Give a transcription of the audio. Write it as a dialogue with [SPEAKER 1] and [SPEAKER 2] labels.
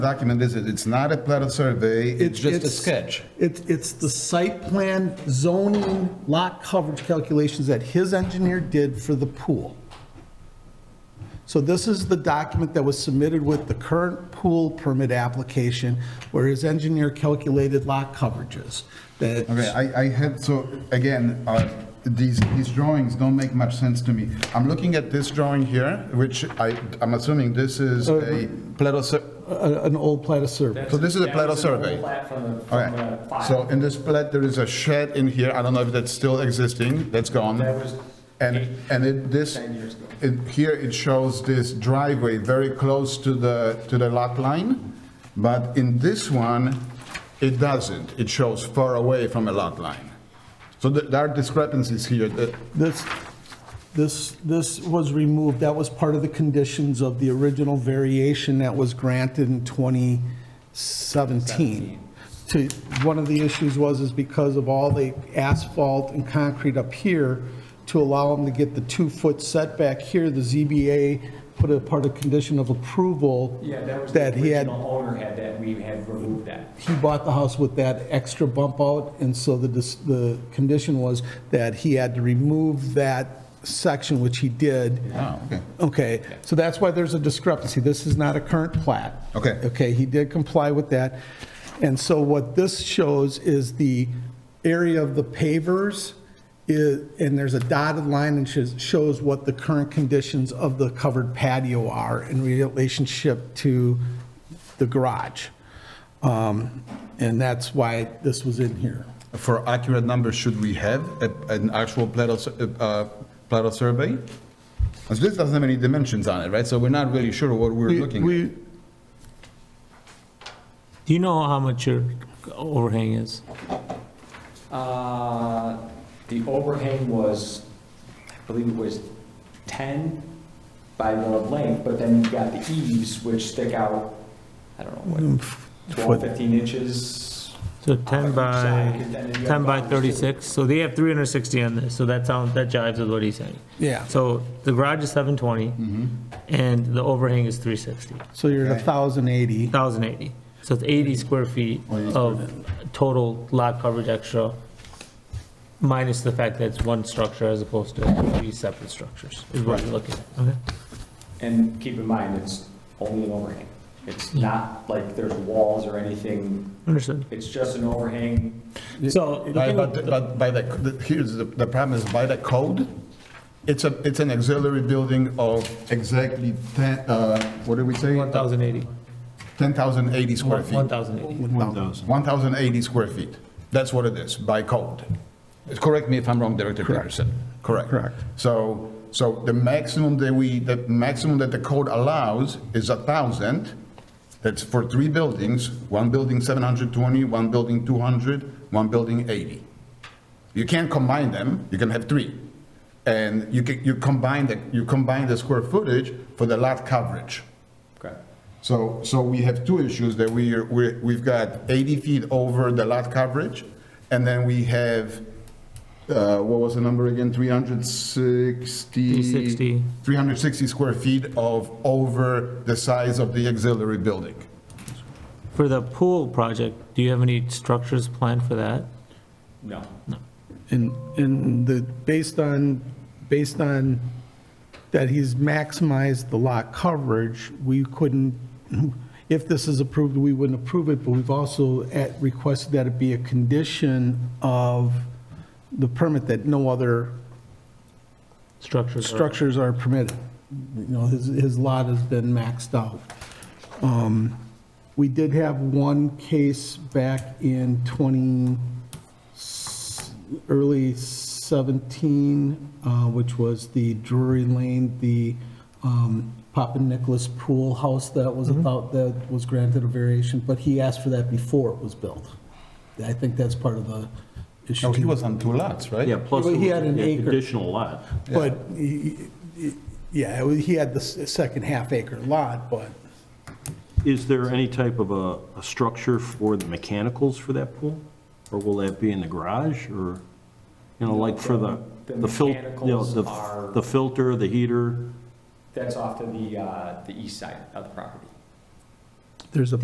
[SPEAKER 1] document is it? It's not a plat of survey, it's just a
[SPEAKER 2] It's-
[SPEAKER 1] sketch.
[SPEAKER 2] It's, it's the site plan zoning lot coverage calculations that his engineer did for the pool. So this is the document that was submitted with the current pool permit application where his engineer calculated lot coverages. That,
[SPEAKER 1] Okay, I, I had, so, again, uh, these, these drawings don't make much sense to me. I'm looking at this drawing here, which I, I'm assuming this is a plat of, Uh, sur-
[SPEAKER 2] a- an old plat of survey.
[SPEAKER 1] so this is a
[SPEAKER 3] That
[SPEAKER 1] plat of
[SPEAKER 3] was an old
[SPEAKER 1] survey?
[SPEAKER 3] plat from the- from uh,
[SPEAKER 1] Okay,
[SPEAKER 3] the file.
[SPEAKER 1] so in this plat, there is a shed in here, I don't know if that's still existing, that's gone.
[SPEAKER 3] That was
[SPEAKER 1] And, and it, this,
[SPEAKER 3] Ten years ago.
[SPEAKER 1] it, here it shows this driveway very close to the, to the lot line, but in this one, it doesn't, it shows far away from a lot line. So th- there are discrepancies here, Uh, that,
[SPEAKER 2] This, this, this was removed, that was part of the conditions of the original variation that was granted in 2017. To, one of the issues was is because of all the asphalt and concrete up here, to allow them to get the two-foot setback here, the ZBA put a part of condition of approval.
[SPEAKER 3] Yeah, that was
[SPEAKER 2] That
[SPEAKER 3] the
[SPEAKER 2] he had,
[SPEAKER 3] original owner had that, we had removed that.
[SPEAKER 2] he bought the house with that extra bump out, and so the, dis- the condition was that he had to remove that section, which he did.
[SPEAKER 1] oh, okay.
[SPEAKER 2] Okay, so that's why there's a discrepancy. This is not a current plat.
[SPEAKER 1] Okay.
[SPEAKER 2] Okay, he did comply with that. And so what this shows is the area of the pavers, is- and there's a dotted line and shows- shows what the current conditions of the covered patio are in relationship to the garage. Um, And that's why this was in here.
[SPEAKER 1] For accurate numbers, should we have a- an actual plat of, sur- uh, uh, plat of survey? 'Cause this doesn't have any dimensions on it, right? So we're not really sure what we're looking at.
[SPEAKER 2] We-
[SPEAKER 4] Do you know how much your overhang is?
[SPEAKER 3] Uh, The overhang was, I believe it was 10 by the length, but then you've got the eaves, which stick out, I don't know,
[SPEAKER 1] Mm,
[SPEAKER 3] what, 12, 15 inches?
[SPEAKER 4] So 10 by,
[SPEAKER 3] Side, and then you have
[SPEAKER 4] 10 by
[SPEAKER 3] boundaries, too.
[SPEAKER 4] 36, so they have 360 on this, so that sounds, that jives with what he's saying.
[SPEAKER 2] Yeah,
[SPEAKER 4] So the garage is 720,
[SPEAKER 1] Mm-hmm.
[SPEAKER 4] and the overhang is 360,
[SPEAKER 2] so you're at 1,080.
[SPEAKER 4] 1,080. So it's 80 square feet
[SPEAKER 1] Oh,
[SPEAKER 4] of total lot coverage extra, minus the fact that it's one structure as opposed to three separate structures, is what you're looking at, okay?
[SPEAKER 3] And keep in mind, it's only an overhang. It's not like there's walls or anything,
[SPEAKER 4] Understood.
[SPEAKER 3] it's just an overhang.
[SPEAKER 4] So.
[SPEAKER 1] Right, But, but by the, the- here's the, the problem is by the code, it's a, it's an auxiliary building of exactly 10, uh, what did we say?
[SPEAKER 4] 1,080,
[SPEAKER 1] 10,080 square feet.
[SPEAKER 4] 1,080.
[SPEAKER 1] 1,080 square feet. That's what it is, by code. Correct me if I'm wrong, Director Peterson. Correct.
[SPEAKER 2] Correct.
[SPEAKER 1] So, so the maximum that we, the maximum that the code allows is 1,000. That's for three buildings, one building 720, one building 200, one building 80. You can't combine them, you can have three. And you can, you combine the, you combine the square footage for the lot coverage.
[SPEAKER 3] Correct.
[SPEAKER 1] So, so we have two issues that we, are- we, we've got 80 feet over the lot coverage, and then we have, uh, what was the number again, 360?
[SPEAKER 4] 360.
[SPEAKER 1] 360 square feet of over the size of the auxiliary building.
[SPEAKER 4] For the pool project, do you have any structures planned for that?
[SPEAKER 3] No.
[SPEAKER 2] And, and the, based on, based on that he's maximized the lot coverage, we couldn't, if this is approved, we wouldn't approve it, but we've also at- requested that it be a condition of the permit that no other
[SPEAKER 4] Structures? are-
[SPEAKER 2] structures are permitted. You know, his, his lot has been maxed out. Um, We did have one case back in 20, s- early 17, uh, which was the Drury Lane, the um, Papa Nicholas Pool House that was about, that was granted a variation, but he asked for that before it was built. I think that's part of the issue.
[SPEAKER 1] No, Oh, he was on two lots, right?
[SPEAKER 5] Yeah, plus
[SPEAKER 2] Well,
[SPEAKER 5] it
[SPEAKER 2] he
[SPEAKER 5] was
[SPEAKER 2] had an
[SPEAKER 5] an
[SPEAKER 2] acre.
[SPEAKER 5] additional lot.
[SPEAKER 2] But, he- he- yeah, it was- he had the s- second half acre lot, but
[SPEAKER 5] Is there any type of a, a structure for the mechanicals for that pool? Or will that be in the garage, or, you know, like for the,
[SPEAKER 3] The
[SPEAKER 5] the fil, you know,
[SPEAKER 3] mechanicals
[SPEAKER 5] the,
[SPEAKER 3] are-
[SPEAKER 5] the filter, the heater?
[SPEAKER 3] That's off to the, uh, the east side of the property.
[SPEAKER 2] there's a